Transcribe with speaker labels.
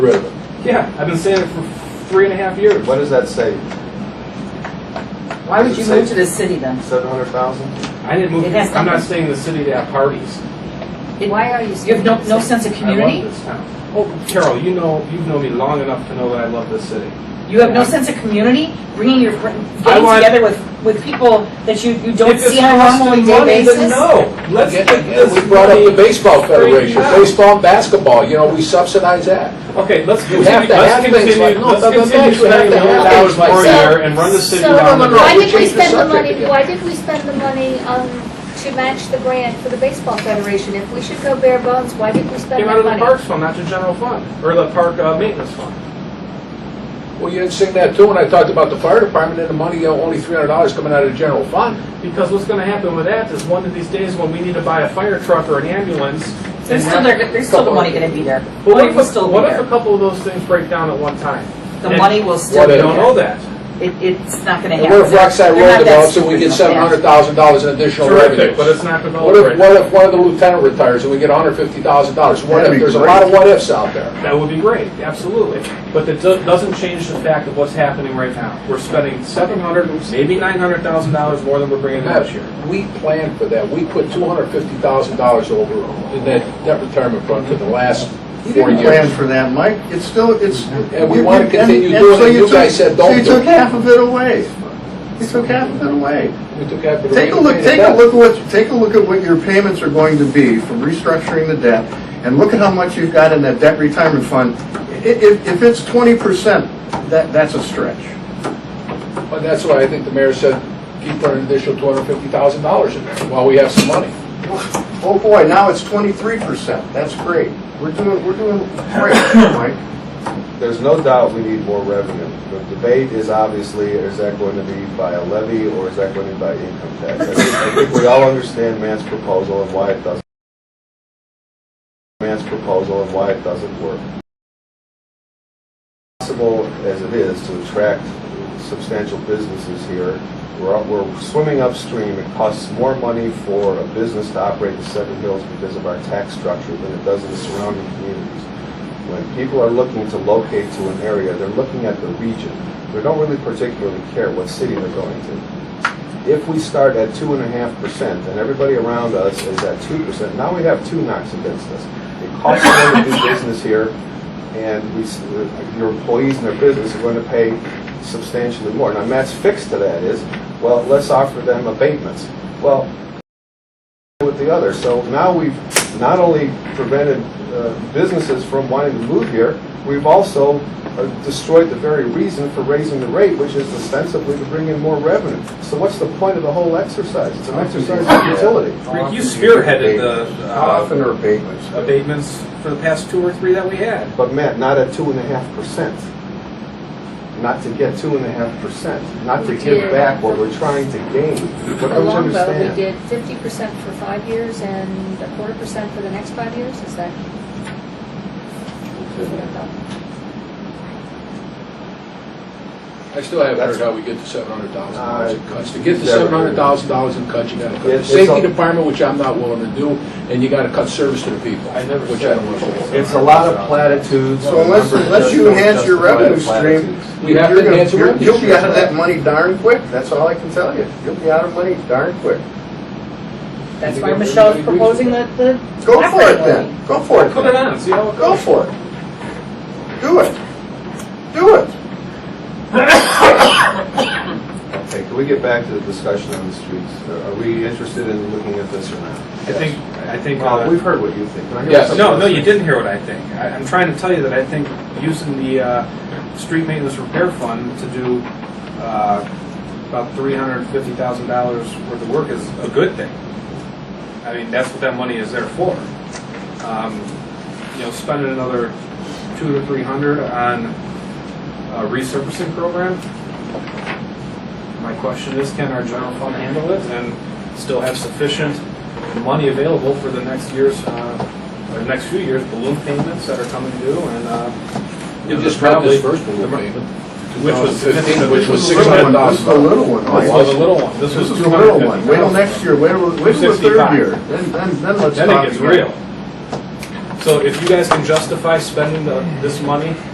Speaker 1: Really?
Speaker 2: Yeah, I've been saying it for three and a half years.
Speaker 1: What does that say?
Speaker 3: Why would you move to the city then?
Speaker 1: Seven hundred thousand?
Speaker 2: I didn't move.
Speaker 3: It has
Speaker 2: I'm not
Speaker 3: nothing-
Speaker 2: staying in the city to have parties.
Speaker 3: Why are you? You have no, no sense of
Speaker 2: I love
Speaker 3: community?
Speaker 2: this town. Oh, Carol, you know, you've known me long enough to know that I love this city.
Speaker 3: You have no sense of community? Bringing your, fr-
Speaker 2: I
Speaker 3: getting
Speaker 2: want-
Speaker 3: together with, with people that you, you don't
Speaker 2: If it's
Speaker 3: see on a
Speaker 2: costing
Speaker 3: normal
Speaker 2: money,
Speaker 3: day
Speaker 2: then
Speaker 3: basis?
Speaker 2: No, let's get
Speaker 4: Yeah,
Speaker 2: this
Speaker 4: we brought up the
Speaker 2: money-
Speaker 4: baseball federation,
Speaker 2: straightened out.
Speaker 4: baseball and basketball, you know, we subsidize that.
Speaker 2: Okay, let's
Speaker 4: You
Speaker 2: continue,
Speaker 4: have to
Speaker 2: let's
Speaker 4: have things
Speaker 2: continue,
Speaker 4: like- no,
Speaker 2: let's
Speaker 4: but- but
Speaker 2: continue
Speaker 4: Max, you have
Speaker 2: spending
Speaker 4: to
Speaker 2: a million
Speaker 4: have
Speaker 2: dollars
Speaker 4: things like-
Speaker 2: per
Speaker 5: So-
Speaker 2: year and run the city
Speaker 5: so-
Speaker 2: down.
Speaker 4: No, no, no,
Speaker 5: Why
Speaker 4: we
Speaker 5: did we
Speaker 4: changed the
Speaker 5: spend the
Speaker 4: subject
Speaker 5: money,
Speaker 4: again.
Speaker 5: why did we spend the money um, to match the grant for the baseball federation? If we should go bare bones, why did we spend
Speaker 2: Came out
Speaker 5: that
Speaker 2: of the
Speaker 5: money?
Speaker 2: parks fund, not the general fund, or the park uh, maintenance fund.
Speaker 4: Well, you didn't sing that too when I talked about the fire department and the money, you know, only three hundred dollars coming out of the general fund.
Speaker 2: Because what's gonna happen with that is one of these days when we need to buy a fire truck or an ambulance. and
Speaker 3: There's still,
Speaker 2: have-
Speaker 3: there- there's still the money gonna be there.
Speaker 2: But
Speaker 3: Money
Speaker 2: what
Speaker 3: will
Speaker 2: if, a-
Speaker 3: still be
Speaker 2: what if a
Speaker 3: there.
Speaker 2: couple of those things break down at one time?
Speaker 3: The money will
Speaker 4: What
Speaker 3: still
Speaker 2: We
Speaker 3: be
Speaker 4: if-
Speaker 2: don't know
Speaker 3: there.
Speaker 2: that.
Speaker 3: It, it's not gonna
Speaker 4: And
Speaker 3: happen.
Speaker 4: what if Rockside
Speaker 3: They're
Speaker 4: Road
Speaker 3: not that
Speaker 4: develops and we get
Speaker 3: stupid.
Speaker 4: seven hundred thousand dollars in additional revenue?
Speaker 2: Terrific, but it's not
Speaker 4: What
Speaker 2: developed
Speaker 4: if,
Speaker 2: right.
Speaker 4: what if one of the lieutenant retires and we get hundred fifty thousand dollars? What if,
Speaker 6: That'd be
Speaker 4: there's a
Speaker 6: great.
Speaker 4: lot of what ifs out there.
Speaker 2: That would be great, absolutely. But it do- doesn't change the fact of what's happening right now. We're spending seven hundred, maybe nine hundred thousand dollars more than we're bringing in this year.
Speaker 4: We planned for that, we put two hundred fifty thousand dollars over in that, that retirement fund for the last
Speaker 6: You
Speaker 4: four
Speaker 6: didn't plan
Speaker 4: years.
Speaker 6: for that, Mike. It's still, it's.
Speaker 4: And we
Speaker 6: you-
Speaker 4: wanna
Speaker 6: you-
Speaker 4: continue
Speaker 6: and-
Speaker 4: doing
Speaker 6: and so
Speaker 4: it. You
Speaker 6: took-
Speaker 4: guys said don't
Speaker 6: so
Speaker 4: do
Speaker 6: You
Speaker 4: it.
Speaker 6: took half of it away. You took half of it away.
Speaker 4: We took that for the
Speaker 6: Take a
Speaker 4: rate
Speaker 6: look,
Speaker 4: of
Speaker 6: take a
Speaker 4: debt.
Speaker 6: look at what, take a look at what your payments are going to be from restructuring the debt, and look at how much you've got in that debt retirement fund. I- If, if it's twenty percent, that, that's a stretch.
Speaker 4: But that's why I think the mayor said, keep putting an additional two hundred fifty thousand dollars in there while we have some money.
Speaker 6: Oh, boy, now it's twenty-three percent. That's great. We're doing, we're doing great, Mike.
Speaker 1: There's no doubt we need more revenue. The debate is obviously, is that going to be by a levy or is that going to be by income tax? I think- I think we all understand Matt's proposal and why it doesn't. Matt's proposal and why it doesn't work. Possible as it is to attract substantial businesses here, we're, up- we're swimming upstream. It costs more money for a business to operate in Seven Hills because of our tax structure than it does in the surrounding communities. When people are looking to locate to an area, they're looking at the region. They don't really particularly care what city they're going to. If we start at two and a half percent and everybody around us is at two percent, now we have two knocks against us. It costs more to do business here and we, s- uh, your employees and their business are going to pay substantially more. Now Matt's fix to that is, well, let's offer them abatements. Well, with the other. So now we've not only prevented uh, businesses from wanting to move here, we've also uh, destroyed the very reason for raising the rate, which is ostensibly to bring in more revenue. So what's the point of the whole exercise? It's an exercise of utility.
Speaker 2: Rick, you spearheaded the uh,
Speaker 6: are abatements?
Speaker 2: abatements for the past two or three that we had.
Speaker 1: But Matt, not at two and a half percent. Not to get two and a half percent, not to
Speaker 5: We
Speaker 1: give
Speaker 5: did.
Speaker 1: back what we're trying to gain. What
Speaker 5: A
Speaker 1: don't you
Speaker 5: long vote, we
Speaker 1: understand?
Speaker 5: did fifty percent for five years and a quarter percent for the next five years, is that?
Speaker 4: I still haven't heard how we get to seven hundred thousand dollars in cuts. To get to
Speaker 1: Never.
Speaker 4: seven hundred thousand dollars in cuts, you gotta cut the
Speaker 1: It's- it's
Speaker 4: safety
Speaker 1: a-
Speaker 4: department, which I'm not willing to do, and you gotta cut service to the people,
Speaker 2: I never
Speaker 4: which I
Speaker 2: said
Speaker 4: don't
Speaker 2: we
Speaker 4: want to do.
Speaker 1: It's a lot of platitudes.
Speaker 6: So unless,
Speaker 1: Numbers
Speaker 6: unless
Speaker 1: just
Speaker 6: you
Speaker 1: don't
Speaker 6: enhance your
Speaker 1: justify the
Speaker 6: revenue stream,
Speaker 1: platitudes.
Speaker 4: We have
Speaker 6: you're
Speaker 4: to
Speaker 6: gonna-
Speaker 4: enhance the
Speaker 6: you're-
Speaker 4: revenue
Speaker 6: You'll be
Speaker 4: stream.
Speaker 6: out of that money darn quick, that's all I can tell you. You'll be out of money darn quick.
Speaker 3: That's why Michelle's proposing the, the.
Speaker 6: Go for it
Speaker 3: operating
Speaker 6: then, go for it
Speaker 2: Put it
Speaker 6: then.
Speaker 2: on, see how it
Speaker 6: Go
Speaker 2: goes.
Speaker 6: for it. Do it. Do it.
Speaker 1: Okay, can we get back to the discussion on the streets? Are- Are we interested in looking at this or not?
Speaker 2: I think, I think. uh,
Speaker 1: Well, we've heard what you think. Can I hear
Speaker 4: Yes.
Speaker 1: something
Speaker 2: No,
Speaker 1: else?
Speaker 2: no, you didn't hear what I think. I, I'm trying to tell you that I think using the uh, street maintenance repair fund to do uh, about three hundred fifty thousand dollars worth of work is a good thing. I mean, that's what that money is there for. Um, you know, spending another two to three hundred on a resurfacing program. My question is, can our general fund handle it and still have sufficient money available for the next year's, uh, or next few years balloon payments that are coming due and, uh,
Speaker 4: We
Speaker 2: you know,
Speaker 4: just
Speaker 2: the
Speaker 4: got this
Speaker 2: probably-
Speaker 4: first balloon payment.
Speaker 2: Which was
Speaker 4: 2015,
Speaker 2: significant.
Speaker 4: which was
Speaker 2: This was a little
Speaker 6: This is the
Speaker 4: 600,000.
Speaker 6: little one,
Speaker 2: This
Speaker 6: Mike.
Speaker 2: was a little one. This
Speaker 6: This
Speaker 2: was
Speaker 6: is
Speaker 2: two
Speaker 6: the
Speaker 2: hundred
Speaker 6: little
Speaker 2: and
Speaker 6: one.
Speaker 2: fifty.
Speaker 6: Wait till next year, wait till, wait till the
Speaker 2: 265.
Speaker 6: third year, then, then, then let's
Speaker 2: Then it
Speaker 6: talk
Speaker 2: gets
Speaker 6: again.
Speaker 2: real. So if you guys can justify spending the, this money